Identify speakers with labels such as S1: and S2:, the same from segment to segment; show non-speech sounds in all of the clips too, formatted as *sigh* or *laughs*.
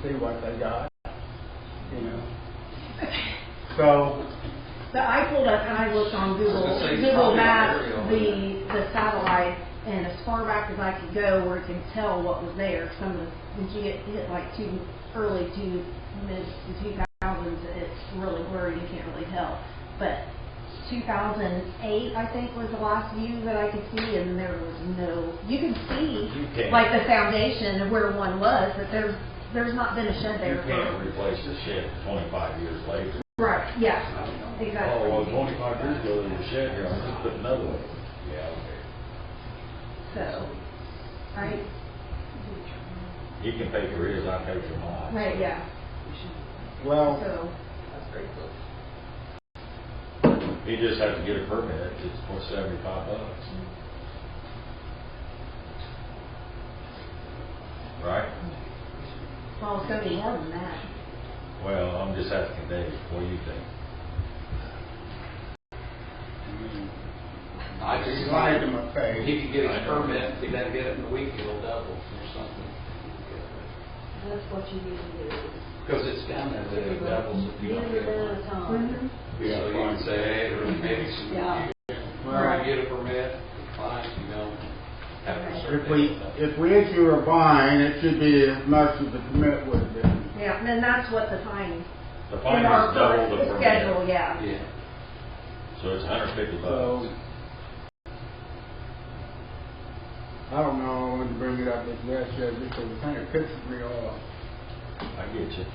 S1: see what they got, you know. So,
S2: So I pulled up and I looked on Google,
S3: It's the same
S2: Google
S3: property
S2: Maps,
S3: area.
S2: the, the satellite, and as far back as I could go where it can tell what was there, some of the, if you get hit like two, early two, mid two thousands, it's really blurry, you can't really tell. But two thousand eight, I think, was the last view that I could see, and there was no, you can
S4: You
S2: see,
S4: can't.
S2: like, the foundation of where one was, but there's, there's not been a shed
S4: You
S2: there
S4: can't
S2: for.
S4: replace the shed twenty-five years later.
S2: Right, yeah, exactly.
S4: Oh, well, twenty-five years ago, there was a shed here, I'm just putting another one. Yeah, okay.
S2: So, right?
S4: He can pay for his, I pay for mine.
S2: Right, yeah,
S1: well,
S2: so,
S4: He just has to get a permit, it's for seventy-five bucks. Right?
S2: well, it's gonna be more than that.
S4: Well, I'm just asking Dave, what do you think?
S3: I just.
S1: slide them a
S3: If He
S1: page.
S3: could get
S4: I
S3: his
S4: know.
S3: permit, if he doesn't get it in a week, it'll double or something.
S5: That's what you need to do.
S3: Because it's down there, that it doubles if you don't
S5: Get
S3: get
S5: it at
S3: it.
S5: a time.
S3: So you can say, hey, there was maybe some,
S5: Yeah.
S3: you to get a permit, fine, you know, have a
S1: If we,
S3: certain.
S1: if we issue a fine, it should be as much as the permit would have been.
S2: Yeah, and then that's what the fine.
S4: The
S2: in
S4: fine
S2: our
S4: is double the
S2: current Schedule,
S4: permit,
S2: yeah.
S3: Yeah.
S4: so it's hundred fifty
S1: So,
S4: bucks.
S1: I don't know, I wanted to bring it up this last year because it kind of pisses me off.
S4: I get you.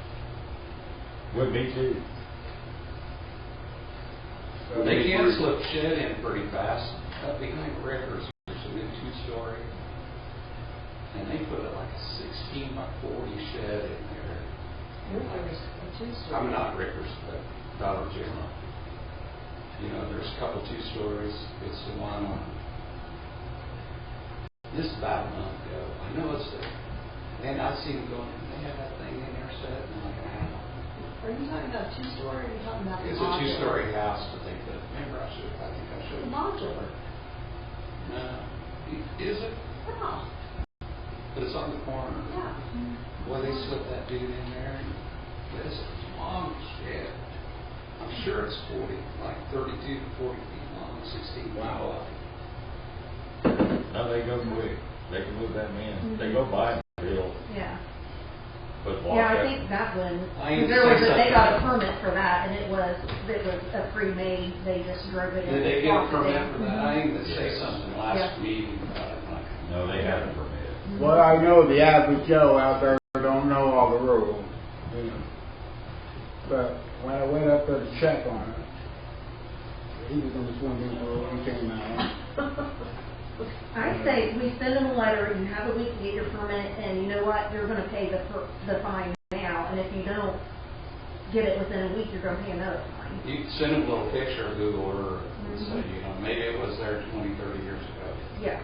S4: Would me too.
S1: So-
S3: They can slip shed in pretty fast, up behind Rickers, there's a new two-story. And they put it like a sixteen by forty shed in there.
S5: Yours is a two-story.
S3: I'm not Rickers, but Dollar General. You know, there's a couple two stories, it's the one on, this is about a month ago, I know it's there. And I seen them going, they have that thing in there set, and I'm like, ah.
S5: Are you talking about two-story or are you talking about the modular?
S3: It's a two-story house, but they put, remember I should, I think I
S5: The
S3: showed you.
S5: modular.
S3: No, is it?
S5: Yeah,
S3: But it's on the corner.
S5: yeah.
S3: Boy, they slipped that dude in there, and this is long as shit. I'm sure it's forty, like thirty-two to forty feet long, sixteen feet
S4: Wow.
S3: wide.
S4: No, they go quick, they can move that
S2: Mm-hmm.
S4: man, they go by, they'll
S2: Yeah,
S4: put walk
S2: yeah, I
S4: out.
S2: think that one,
S3: I ain't
S2: there was,
S3: saying
S2: a- they got a
S3: something.
S2: permit for that, and it was, it was a pre-made, they just drove it in.
S3: Did they get a
S2: walked it
S3: permit
S2: in.
S3: for that? I even say
S4: Yes.
S3: something
S2: Yeah.
S3: last meeting about it, like,
S4: No, they have a permit.
S1: Well, I know the average Joe out there don't know all the rules, you know. But when I went up there to check on it, he was in the swimming pool and came out.
S2: I say, we send them a letter, you have a week to get your permit, and you know what, you're gonna pay the, per- the fine now, and if you don't get it within a week, you're gonna pay another fine.
S3: you can send them a little picture of Google Earth, and say, you know, maybe it was there twenty, thirty years ago.
S2: *laughs* Yeah.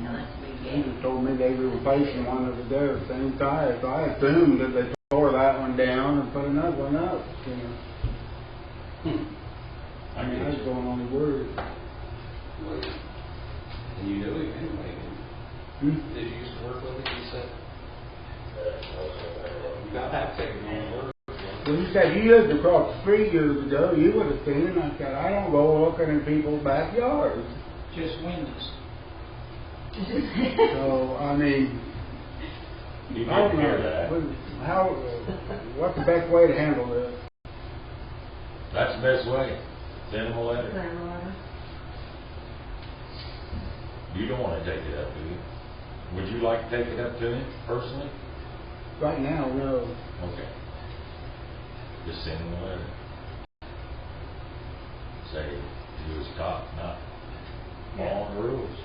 S1: He just told me they were replacing one of the doors, same size. So I assumed that they tore that one down and put another one up, you know.
S3: Hmm.
S1: I mean, I was going on the word.
S3: Well, And you knew him anyway,
S1: Hmm?
S3: did you used to work with him, you said? You got that taken on work.
S1: Well, he said, you lived across the street years ago, you would have seen it. I said, I don't go looking in people's backyards.
S6: just windows.
S1: So, I mean,
S4: You
S1: I
S4: can
S1: don't
S4: hear
S1: know,
S4: that.
S1: What- how, what's the best way to handle this?
S4: That's the best way. Send them a letter.
S2: Send them a letter.
S4: You don't want to take it up, do you? Would you like to take it up to him personally?
S1: Right now, no.
S4: Okay. Just send him a letter. Say, he was caught not following the rules.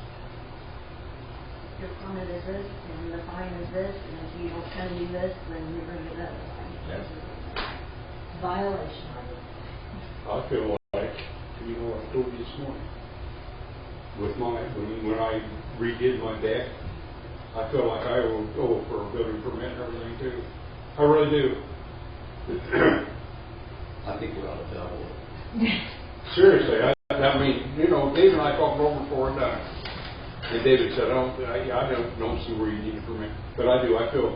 S2: Your permit is this, and the fine is this, and if you don't send me this, then you're gonna get that fine.
S4: Yeah.
S5: Violation of it.
S7: I feel like, you know, I told you this morning, with my, when, when I redid my deck, I feel like I will go for a building permit and everything too. I really do. *clears throat*
S3: I think we ought to double it.
S7: Seriously, I, I mean, you know, Dave and I talked over before and, uh, and David said, I don't, I, I don't, don't see where you need a permit, but I do, I feel